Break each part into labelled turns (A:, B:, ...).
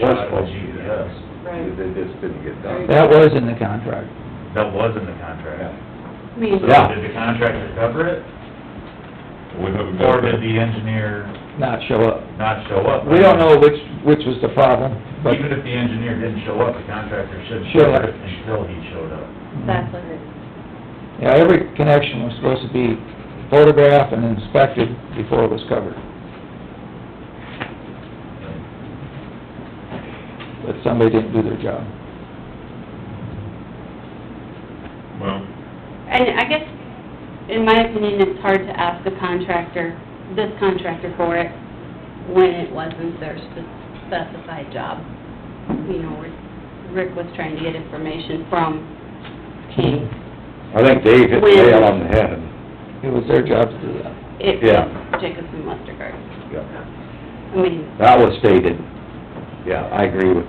A: was
B: Uh,
A: supposed to
B: E
A: be done.
C: Right.
A: They just didn't get done.
D: That was in the contract.
B: That was in the contract.
C: I mean,
B: So
D: Yeah.
B: did the contractor cover it,
E: We haven't
B: or
E: got
B: did
E: that.
B: the engineer
D: Not show up.
B: not show up?
D: We don't know which, which was the problem, but
B: Even if the engineer didn't show up, the contractor should
D: Should
B: cover
D: have.
B: it until he showed up.
D: Mm-hmm.
C: that's what it,
D: Yeah, every connection was supposed to be photographed and inspected before it was covered. But somebody didn't do their job.
E: Well,
C: and I guess, in my opinion, it's hard to ask the contractor, this contractor for it, when it wasn't their spe- specified job. You know, Rick- Rick was trying to get information from King.
A: I think Dave hit the nail on the head.
D: It was their job to do that.
C: It
A: Yeah.
C: was Jacobson Westergaard. I mean,
A: That was stated. Yeah, I agree with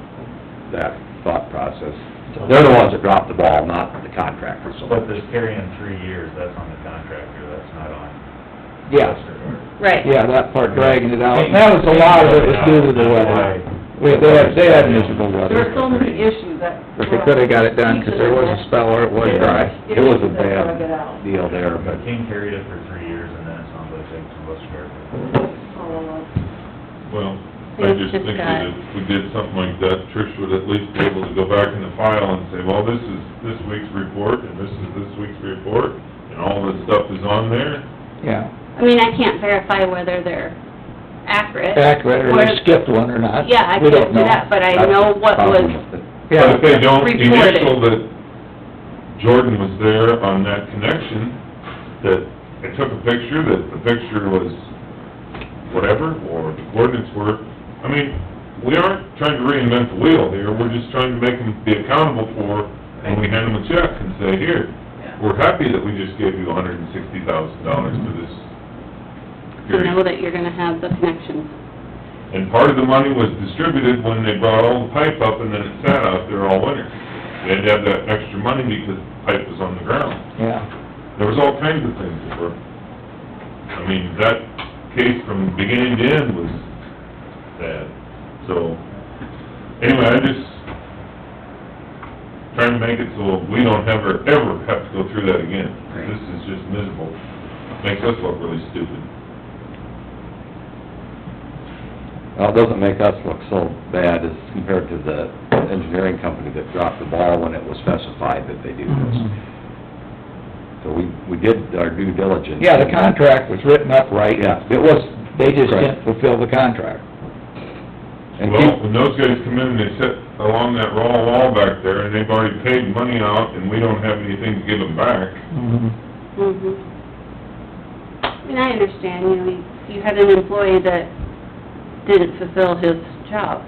A: that thought process. They're the ones that dropped the ball, not the contractors. so-
B: But this carrying three years, that's on the contractor, that's not on Westergaard.
C: right.
D: Yeah, that part dragging it out. And that was a lot of it was due to the weather. We, they had, they had miserable
F: There are so
D: weather.
F: many issues that.
D: But they could've got it done, 'cause there was a spell where it was dry.
A: It was a
F: Issues that gotta get
A: bad
F: out.
A: deal there, but
B: But King carried it for three years, and then it sounds like Jacobson Westergaard.
F: Oh,
E: well, I
C: It's
E: just
C: just
E: think
C: got-
E: that if we did something like that, Trish would at least be able to go back in the file and say, well, this is this week's report, and this is this week's report, and all this stuff is on there.
D: Yeah,
C: I mean, I can't verify whether they're accurate.
D: accurate, or they skipped one or not.
C: Yeah, I
D: We don't
C: can't do
D: know.
C: that, but I
A: that's
C: know
A: the
C: what
A: problem
C: was,
A: with it.
D: Yeah.
E: But if they don't
C: Reported.
E: initial that Jordan was there on that connection, that I took a picture, that the picture was whatever, or the coordinates were, I mean, we aren't trying to reinvent the wheel here, we're just trying to make them be accountable for, when we hand them a check and say, here, we're happy that we just gave you a hundred and sixty thousand dollars for this
C: to
E: period.
C: know that you're gonna have the connections.
E: And part of the money was distributed when they brought all the pipe up and then it sat out there all winter. They had to have that extra money because the pipe was on the ground.
D: Yeah,
E: There was all kinds of things that were, I mean, that case from beginning to end was bad. So, anyway, I just trying to make it so we don't ever, ever have to go through that again. This is just miserable. Makes us look really stupid.
A: Well, it doesn't make us look so bad as compared to the engineering company that dropped the ball when it was specified that they do this.
D: Mm-hmm.
A: So we, we did our due diligence.
D: yeah, the contract was written up right.
A: Yeah.
D: It was, they just
A: Correct.
D: didn't fulfill the contract.
A: And
E: Well,
A: keep,
E: when those guys come in, they sit along that raw wall back there, and they've already paid money out, and we don't have anything to give them back.
C: Mm-hmm. And Mm-hmm. I understand, you know, you- you had an employee that didn't fulfill his job,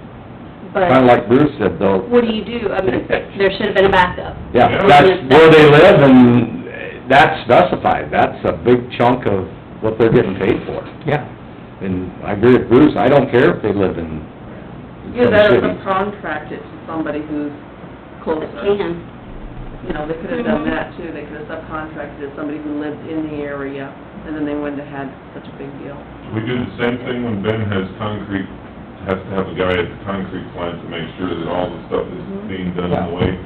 A: kinda
C: but
A: like Bruce said though,
C: what do you do? I mean, there should have been a backup.
A: yeah, that's where they live and that's specified, that's a big chunk of what they're getting paid for.
D: Yeah.
A: And I agree with Bruce, I don't care if they live in in
F: Yeah,
A: some
F: that is
A: city.
F: a contract it to somebody who's
C: That
F: closer.
C: can,
F: You know, they could've done
C: Mhm.
F: that too, they could've subcontracted it, to somebody who lived in the area, and then they wouldn't have had such a big deal.
E: We do the same thing when Ben has concrete, has to have a guy at the concrete plant to make sure that all the stuff is being done in the way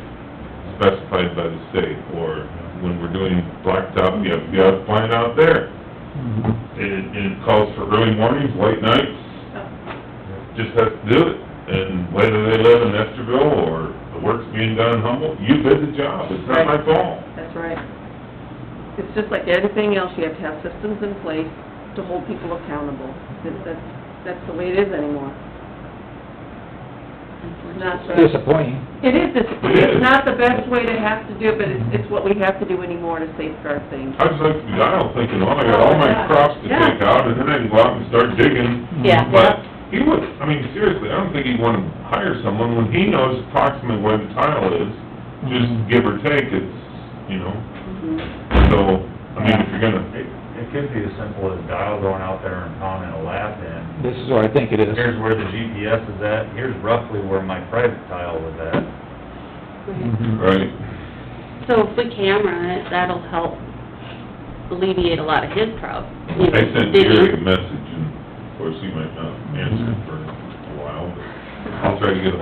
E: specified by the state, or when we're doing blacktop, you have, you have a plant out there. It, it calls for early mornings, late nights, just has to do it. And whether they live in Esterville or the work's being done in Humboldt, you did the job, it's not my fault.
F: That's right. It's just like anything else, you have to have systems in place to hold people accountable. That- That's, that's the way it is anymore. Not the-
D: Disappointing.
F: It is,
E: It
F: it's,
E: is.
F: it's not the best way to have to do it, but it's, it's what we have to do anymore to safeguard things.
E: I was like, I don't think, you know, I got all my crops to take out, and then I can go out and start digging.
C: yeah.
E: But he would, I mean, seriously, I don't think he'd wanna hire someone when he knows approximately where the tile is, just give or take, it's, you know,
F: Mhm.
E: so, I mean, if you're gonna,
B: It, it could be as simple as dial going out there and pounding a lap in,
D: This is what I think it is.
B: here's where the GPS is at, here's roughly where my private tile was at.
D: Mm-hmm.
E: right,
C: So if we camera it, that'll help alleviate a lot of his problems, you know,
E: I sent
C: digging.
E: Gary a message, and of course, he might not answer for a while, but I'll try to get ahold